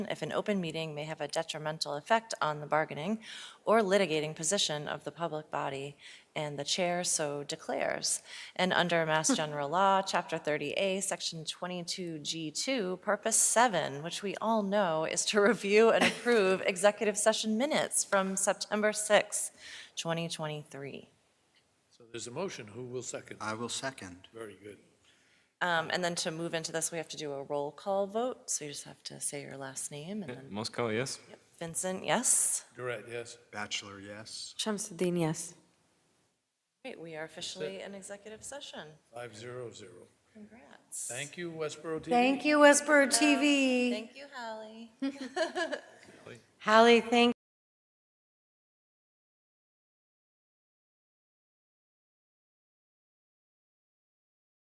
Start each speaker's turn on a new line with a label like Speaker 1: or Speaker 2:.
Speaker 1: if an open meeting may have a detrimental effect on the bargaining or litigating position of the public body, and the chair so declares. And under Mass General Law, Chapter 30A, Section 22G2, Purpose 7, which we all know is to review and approve executive session minutes from September 6, 2023.
Speaker 2: So there's a motion. Who will second?
Speaker 3: I will second.
Speaker 2: Very good.
Speaker 1: Um, And then to move into this, we have to do a roll call vote, so you just have to say your last name, and then
Speaker 4: Moscow, yes?
Speaker 1: Vincent, yes?
Speaker 2: Durant, yes.
Speaker 3: Bachelor, yes.
Speaker 5: Shamsuddin, yes.
Speaker 1: Great, we are officially in executive session.
Speaker 2: Five zero zero.
Speaker 1: Congrats.
Speaker 2: Thank you, Westboro TV.
Speaker 5: Thank you, Whisper TV.
Speaker 1: Thank you, Hallie.
Speaker 5: Hallie, thank